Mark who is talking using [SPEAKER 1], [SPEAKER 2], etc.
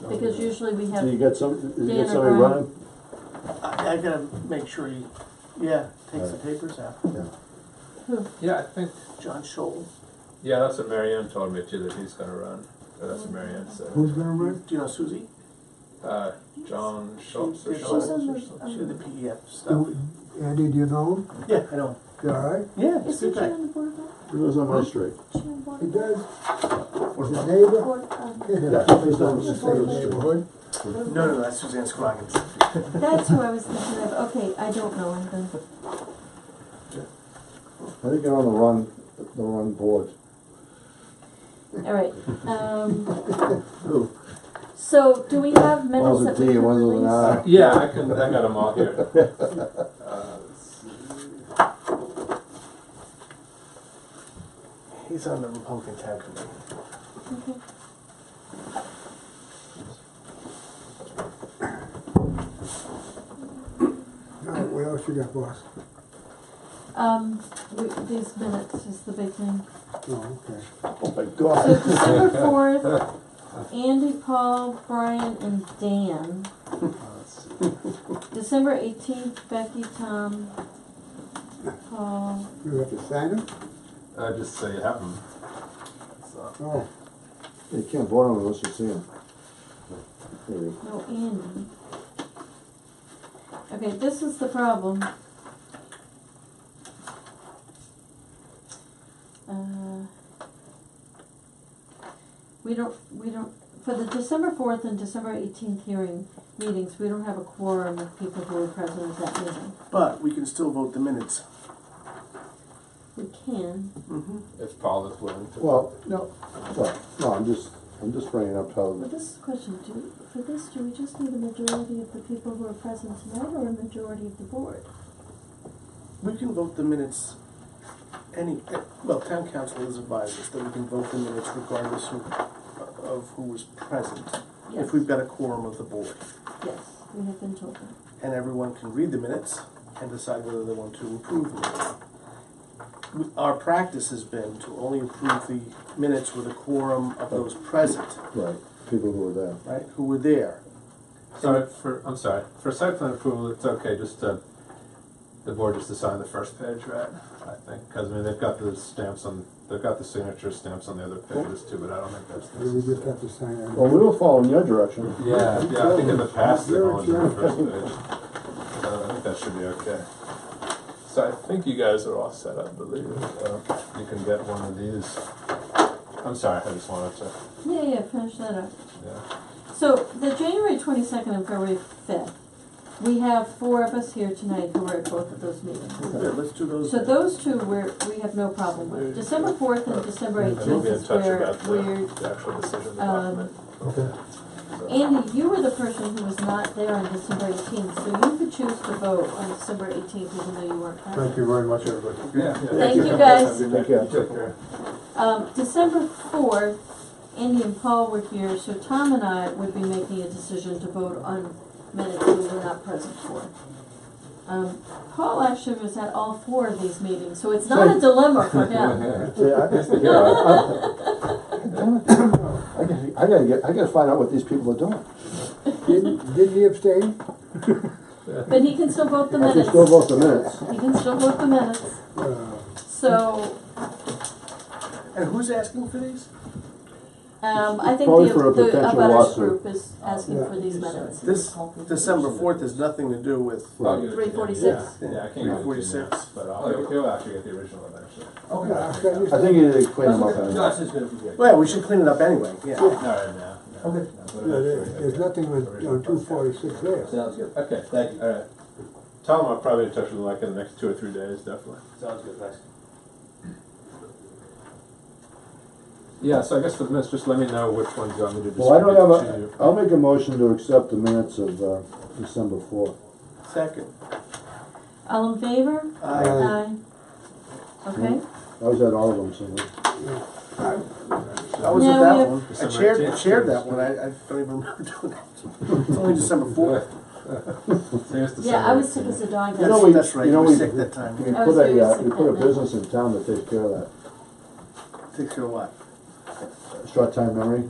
[SPEAKER 1] Because usually we
[SPEAKER 2] So you
[SPEAKER 1] have,
[SPEAKER 2] got some, you
[SPEAKER 1] Dan or
[SPEAKER 2] got somebody
[SPEAKER 1] Brian?
[SPEAKER 2] running?
[SPEAKER 3] I, I gotta make sure he, yeah, takes the papers out.
[SPEAKER 2] Yeah.
[SPEAKER 4] Yeah, I think,
[SPEAKER 3] John Scholl,
[SPEAKER 5] Yeah, that's what Marianne told me too, that he's gonna run, or that's what Marianne said.
[SPEAKER 6] Who's gonna
[SPEAKER 3] do
[SPEAKER 6] run?
[SPEAKER 3] you know Susie?
[SPEAKER 5] Uh, John Schultz or
[SPEAKER 3] She's
[SPEAKER 5] Schultz.
[SPEAKER 3] on
[SPEAKER 1] on
[SPEAKER 3] the,
[SPEAKER 1] the-
[SPEAKER 3] she's the PEF stuff.
[SPEAKER 6] Who- Andy, do you know him?
[SPEAKER 3] Yeah, I know.
[SPEAKER 6] You all right?
[SPEAKER 3] Yeah, it's
[SPEAKER 1] isn't
[SPEAKER 3] good
[SPEAKER 1] she
[SPEAKER 3] guy.
[SPEAKER 1] on the board now?
[SPEAKER 2] He lives on my street.
[SPEAKER 1] She on board?
[SPEAKER 6] He
[SPEAKER 1] now?
[SPEAKER 6] does? He's a neighbor?
[SPEAKER 1] Board, um,
[SPEAKER 2] Yeah, he's
[SPEAKER 6] From
[SPEAKER 2] on
[SPEAKER 6] the
[SPEAKER 2] the
[SPEAKER 6] same
[SPEAKER 2] street.
[SPEAKER 6] neighborhood?
[SPEAKER 3] No, no, that's Suzanne Scroggins.
[SPEAKER 1] That's who I was thinking of, okay, I don't know anything.
[SPEAKER 2] I think you're on the wrong, the wrong board.
[SPEAKER 1] All right, um,
[SPEAKER 2] Who?
[SPEAKER 1] so do we have
[SPEAKER 2] One's
[SPEAKER 1] minutes
[SPEAKER 2] a
[SPEAKER 1] that we
[SPEAKER 2] D,
[SPEAKER 1] can
[SPEAKER 2] one's with an
[SPEAKER 1] release?
[SPEAKER 2] I.
[SPEAKER 5] Yeah, I can, I got them all here. Uh,
[SPEAKER 3] He's on the Republican tab committee.
[SPEAKER 1] Okay.
[SPEAKER 6] All right, what else you got, boss?
[SPEAKER 1] Um, we- these minutes is the big thing.
[SPEAKER 6] Oh, okay.
[SPEAKER 2] Oh my
[SPEAKER 1] So
[SPEAKER 2] God.
[SPEAKER 1] December fourth, Andy, Paul, Brian, and Dan. December eighteenth, Becky, Tom, Paul.
[SPEAKER 6] You have to sign him?
[SPEAKER 5] I just say you have them. So,
[SPEAKER 6] Oh,
[SPEAKER 2] You can't vote on him unless you see him. Maybe.
[SPEAKER 1] No, Oh, Andy. Okay, this is the problem. Uh, We don't, we don't, for the December fourth and December eighteenth hearing meetings, we don't have a quorum of people who were present at that meeting.
[SPEAKER 3] But we can still vote the minutes.
[SPEAKER 1] We can,
[SPEAKER 3] Mm-hmm.
[SPEAKER 5] If Paul is willing to.
[SPEAKER 2] Well, no, well, no, I'm just, I'm just bringing up
[SPEAKER 1] but
[SPEAKER 2] how,
[SPEAKER 1] this is a question, do, for this, do we just need a majority of the people who are present tonight or a majority of the board?
[SPEAKER 3] We can vote the minutes, any, well, town council has advised us that we can vote the minutes regardless who, of who was present. If we've got a quorum of the board.
[SPEAKER 1] Yes, we have been told that.
[SPEAKER 3] and everyone can read the minutes and decide whether they want to approve them. or not. We- Our practice has been to only approve the minutes with a quorum of those present,
[SPEAKER 2] right, people who were there.
[SPEAKER 3] right, who were there.
[SPEAKER 5] Sorry, for, I'm sorry, for site plan approval, it's okay, just to, the board just to sign the first page, right? I think, cause I mean, they've got the stamps on, they've got the signature stamps on the other pages too, but I don't think that's
[SPEAKER 6] we just have to
[SPEAKER 5] necessary.
[SPEAKER 6] sign it.
[SPEAKER 2] Well, we were following your direction.
[SPEAKER 5] Yeah, yeah, I think in the past they've only done the first page. Uh, I think that should be okay. So I think you guys are all set up, believe it, uh, you can get one of these. I'm sorry, I just wanted to,
[SPEAKER 1] Yeah, yeah, finish that up.
[SPEAKER 5] yeah,
[SPEAKER 1] So the January twenty-second and February fifth, we have four of us here tonight who were at both of those meetings.
[SPEAKER 3] Yeah, let's do those.
[SPEAKER 1] So those two were, we have no problem with. December fourth and December
[SPEAKER 5] and we'll
[SPEAKER 1] eighteenth
[SPEAKER 5] be in
[SPEAKER 1] is
[SPEAKER 5] touch
[SPEAKER 1] where,
[SPEAKER 5] about
[SPEAKER 1] where,
[SPEAKER 5] the, the actual decision, the
[SPEAKER 1] um,
[SPEAKER 5] document.
[SPEAKER 6] Okay.
[SPEAKER 5] So-
[SPEAKER 1] Andy, you were the person who was not there on December eighteenth, so you could choose to vote on December eighteenth even though you weren't
[SPEAKER 6] Thank
[SPEAKER 1] present.
[SPEAKER 6] you very much, everybody.
[SPEAKER 5] Yeah.
[SPEAKER 1] Thank you, guys.
[SPEAKER 2] Take care.
[SPEAKER 5] Take care.
[SPEAKER 1] Um, December fourth, Andy and Paul were here, so Tom and I would be making a decision to vote on minutes we were not present for. Um, Paul actually was at all four of these meetings, so it's not a dilemma for him.
[SPEAKER 2] See, I, yeah, I, I, I gotta- I gotta get, I gotta find out what these people are doing.
[SPEAKER 6] Didn't, didn't he abstain?
[SPEAKER 1] But he can still vote the
[SPEAKER 2] I can
[SPEAKER 1] minutes.
[SPEAKER 2] still vote the minutes.
[SPEAKER 1] He can still vote the minutes.
[SPEAKER 6] Uh,
[SPEAKER 1] So,
[SPEAKER 3] And who's asking for these?
[SPEAKER 1] um, I think
[SPEAKER 2] Probably
[SPEAKER 1] the,
[SPEAKER 2] for a
[SPEAKER 1] the
[SPEAKER 2] potential
[SPEAKER 1] abutters
[SPEAKER 2] lawsuit.
[SPEAKER 1] group is asking
[SPEAKER 6] Yeah.
[SPEAKER 1] for these minutes.
[SPEAKER 3] This December fourth has nothing to do with,
[SPEAKER 5] I'll get it to him.
[SPEAKER 1] 346.
[SPEAKER 5] Yeah, yeah, I can't get it to you now,
[SPEAKER 3] 346.
[SPEAKER 5] But I'll, he'll actually get the original one, actually.
[SPEAKER 6] Okay, I'll send you
[SPEAKER 2] I think you need to clean them up. anyway.
[SPEAKER 5] is gonna be good.
[SPEAKER 3] well, we should clean it up anyway, yeah.
[SPEAKER 5] Not right now. no,
[SPEAKER 6] Okay.
[SPEAKER 5] no, but-
[SPEAKER 6] No, there- There's nothing on, on two forty-six there.
[SPEAKER 7] Sounds good,
[SPEAKER 5] Okay, thank you, all right. Tom, I'll probably touch with him like in the next two or three days, definitely.
[SPEAKER 7] sounds good, thanks.
[SPEAKER 5] Yeah, so I guess for the minutes, just let me know which ones you want me to
[SPEAKER 2] Well, I
[SPEAKER 5] distribute
[SPEAKER 2] don't
[SPEAKER 5] to
[SPEAKER 2] have
[SPEAKER 5] you.
[SPEAKER 2] a, I'll make a motion to accept the minutes of, uh, December fourth.
[SPEAKER 3] Second.
[SPEAKER 1] All in favor?
[SPEAKER 3] Aye.
[SPEAKER 1] Aye. Okay.
[SPEAKER 2] I was at all of them, so.
[SPEAKER 3] I was at
[SPEAKER 1] Now we
[SPEAKER 3] that
[SPEAKER 1] have-
[SPEAKER 3] one. I
[SPEAKER 5] December
[SPEAKER 3] chaired, I
[SPEAKER 5] 18th.
[SPEAKER 3] chaired that one. I, I don't even remember doing that. It's only December fourth.
[SPEAKER 1] Yeah, I was sick as a dog.
[SPEAKER 2] You know, we-
[SPEAKER 3] That's right,
[SPEAKER 2] you
[SPEAKER 3] you
[SPEAKER 2] know,
[SPEAKER 3] were
[SPEAKER 2] we-
[SPEAKER 3] sick that time.
[SPEAKER 2] We
[SPEAKER 3] yeah.
[SPEAKER 1] I
[SPEAKER 2] put
[SPEAKER 1] was
[SPEAKER 2] a,
[SPEAKER 1] gonna
[SPEAKER 2] uh,
[SPEAKER 1] say
[SPEAKER 2] we put a
[SPEAKER 1] that now.
[SPEAKER 2] business in town that takes care of
[SPEAKER 3] Takes care of what?
[SPEAKER 2] that. Short time memory.